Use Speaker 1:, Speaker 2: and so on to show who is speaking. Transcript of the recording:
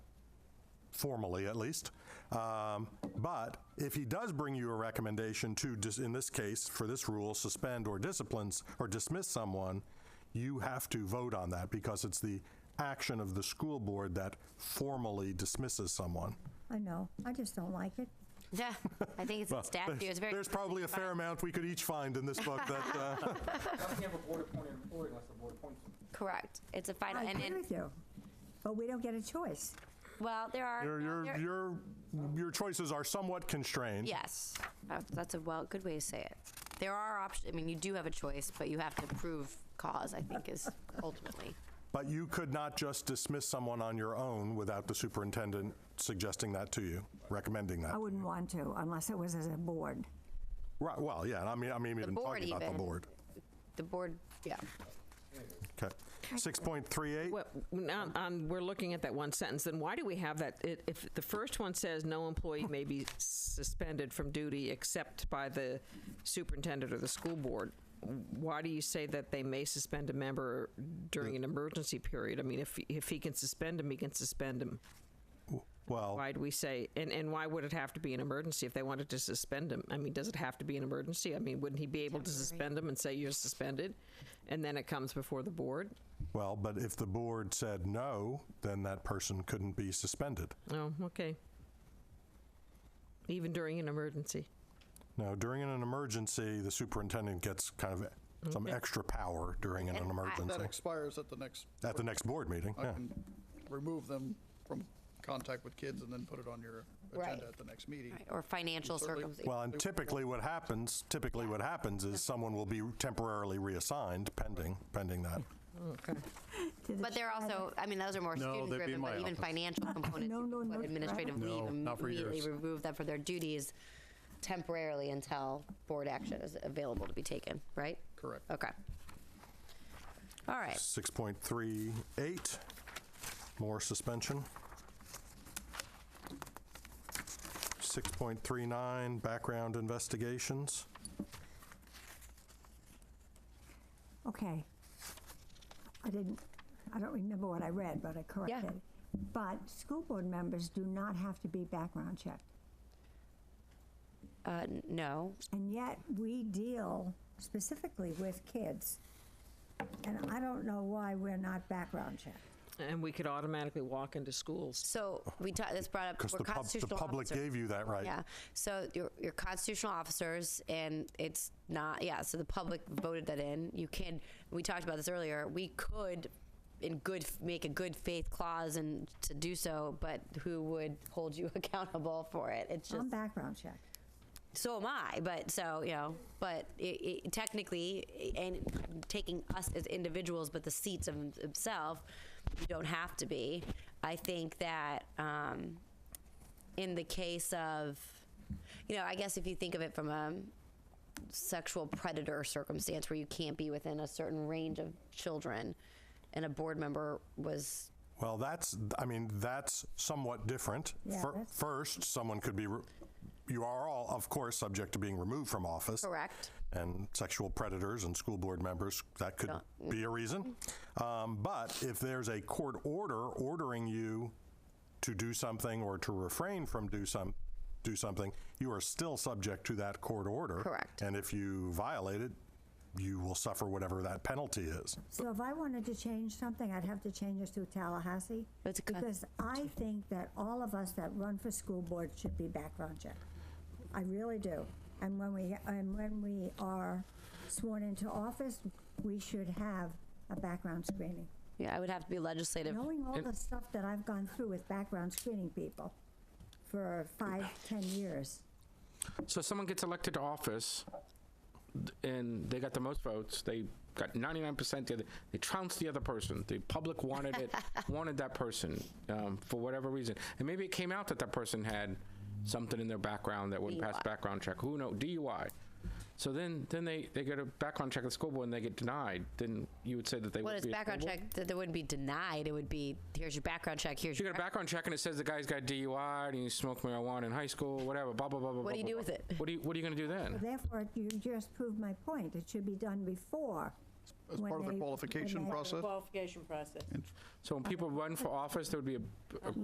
Speaker 1: formally at least. Um, But if he does bring you a recommendation to, dis- in this case, for this rule, suspend or disciplines, or dismiss someone, you have to vote on that because it's the action of the school board that formally dismisses someone.
Speaker 2: I know, I just don't like it.
Speaker 3: Yeah, I think it's in statute. It's very.
Speaker 1: There's probably a fair amount we could each find in this book that, uh,
Speaker 4: Doesn't have a board appointed employee unless the board appoints them.
Speaker 3: Correct. It's a final.
Speaker 2: I
Speaker 3: and,
Speaker 2: agree
Speaker 3: and
Speaker 2: with you, but we don't get a choice.
Speaker 3: well, there are.
Speaker 1: your,
Speaker 3: there-
Speaker 1: your, your, your choices are somewhat constrained.
Speaker 3: Yes, Uh, that's a well good way to say it. There are options. I mean, you do have a choice, but you have to prove cause. I think is ultimately.
Speaker 1: But you could not just dismiss someone on your own without the superintendent suggesting that to you, recommending that.
Speaker 2: I wouldn't want to unless it was as a board.
Speaker 1: Right, well, yeah, and I mean, I mean even
Speaker 3: board
Speaker 1: talking about the
Speaker 3: even.
Speaker 1: board.
Speaker 3: The board, yeah.
Speaker 1: Okay. 6.38,
Speaker 5: Well, on, on, we're looking at that one sentence, then why do we have that? It- If the first one says, "No employee may be suspended from duty except by the superintendent or the school board," why do you say that they may suspend a member during an emergency period? I mean, if, if he can suspend him, he can suspend him.
Speaker 1: well,
Speaker 5: Why do we say, and, and why would it have to be an emergency if they wanted to suspend him? I mean, does it have to be an emergency? I mean, wouldn't he be able to suspend him and say, "You're suspended," and then it comes before the board?
Speaker 1: well, but if the board said no, then that person couldn't be suspended.
Speaker 5: Oh, okay. Even during an emergency.
Speaker 1: Now, during an emergency, the superintendent gets kind of some extra power during an
Speaker 6: That
Speaker 1: emergency.
Speaker 6: expires at the next,
Speaker 1: At the next board meeting,
Speaker 6: I
Speaker 1: yeah.
Speaker 6: can remove them from contact with kids and then put it on your
Speaker 3: Right.
Speaker 6: agenda at the next meeting.
Speaker 3: Right, Or financial
Speaker 6: Certainly.
Speaker 3: circumstances.
Speaker 1: Well, and typically what happens, typically what happens is someone will be temporarily reassigned pending, pending that.
Speaker 2: to the
Speaker 3: But they're also, I mean, those are more
Speaker 7: No,
Speaker 3: student
Speaker 7: they'd be
Speaker 3: driven,
Speaker 7: in
Speaker 3: but
Speaker 7: my
Speaker 3: even
Speaker 7: office.
Speaker 3: financial components.
Speaker 2: No, no, not
Speaker 3: people put
Speaker 2: forever.
Speaker 3: Administrative leave
Speaker 7: No, not for
Speaker 3: immediately
Speaker 7: years.
Speaker 3: remove them from their duties temporarily until board action is available to be taken, right?
Speaker 6: Correct.
Speaker 3: Okay. All right.
Speaker 1: 6.38, more suspension. 6.39, background investigations.
Speaker 2: Okay. I didn't, I don't remember what I read, but I corrected. But school board members do not have to be background checked.
Speaker 3: Uh, n- no,
Speaker 2: And yet, we deal specifically with kids. And I don't know why we're not background checked.
Speaker 5: And we could automatically walk into schools.
Speaker 3: So we talked. This brought up
Speaker 1: Because
Speaker 3: we're
Speaker 1: the, pub- the
Speaker 3: constitutional
Speaker 1: public
Speaker 3: officers.
Speaker 1: gave you that right.
Speaker 3: Yeah. So you're, you're constitutional officers, and it's not. Yeah. So the public voted that in. You can. We talked about this earlier. We could, in good, f- make a good faith clause and to do so, but who would hold you accountable for it? It's just
Speaker 2: I'm background checked.
Speaker 3: so am I. But so you know, but it, it, technically, i- and taking us as individuals, but the seats of himself, you don't have to be. I think that um, in the case of, you know, I guess if you think of it from a sexual predator circumstance where you can't be within a certain range of children, and a board member was
Speaker 1: Well, that's, I mean, that's somewhat different.
Speaker 2: Yeah,
Speaker 1: Fir-
Speaker 2: that's-
Speaker 1: First, someone could be, re- you are all, of course, subject to being removed from office.
Speaker 3: correct.
Speaker 1: and sexual predators and school board members, that could be a reason. Um, but if there's a court order ordering you to do something or to refrain from do some, do something, you are still subject to that court order.
Speaker 3: Correct.
Speaker 1: And if you violate it, you will suffer whatever that penalty is.
Speaker 2: So if I wanted to change something, I'd have to change it to Tallahassee.
Speaker 3: That's a con-
Speaker 2: Because I think that all of us that run for school board should be background checked. I really do. And when we, and when we are sworn into office, we should have a background screening.
Speaker 3: Yeah, I would have to be legislative.
Speaker 2: Knowing all the stuff that I've gone through with background screening people for five, ten years.
Speaker 8: So someone gets elected to office, th- and they got the most votes. They got 99%. The other, they trounced the other person. The public wanted it, wanted that person um, for whatever reason. And maybe it came out that that person had something in their background that wouldn't pass background check. Who knows? DUI. So then, then they, they go to background check at the school board and they get denied. Then you would say that they
Speaker 3: What
Speaker 8: would
Speaker 3: is
Speaker 8: be a
Speaker 3: background
Speaker 8: school board?
Speaker 3: check? That they wouldn't be denied. It would be here's your background check. Here's
Speaker 8: You
Speaker 3: your
Speaker 8: get a background check and it says the guy's got DUI and he smoked marijuana in high school, whatever. Blah blah blah blah.
Speaker 3: What do you
Speaker 8: blah,
Speaker 3: do
Speaker 8: blah,
Speaker 3: with
Speaker 8: blah.
Speaker 3: it?
Speaker 8: What do you What are you gonna do then?
Speaker 2: Therefore, you just proved my point. It should be done before.
Speaker 6: As part of the qualification process?
Speaker 9: Qualification process.
Speaker 8: So when people run for office, there would be a, a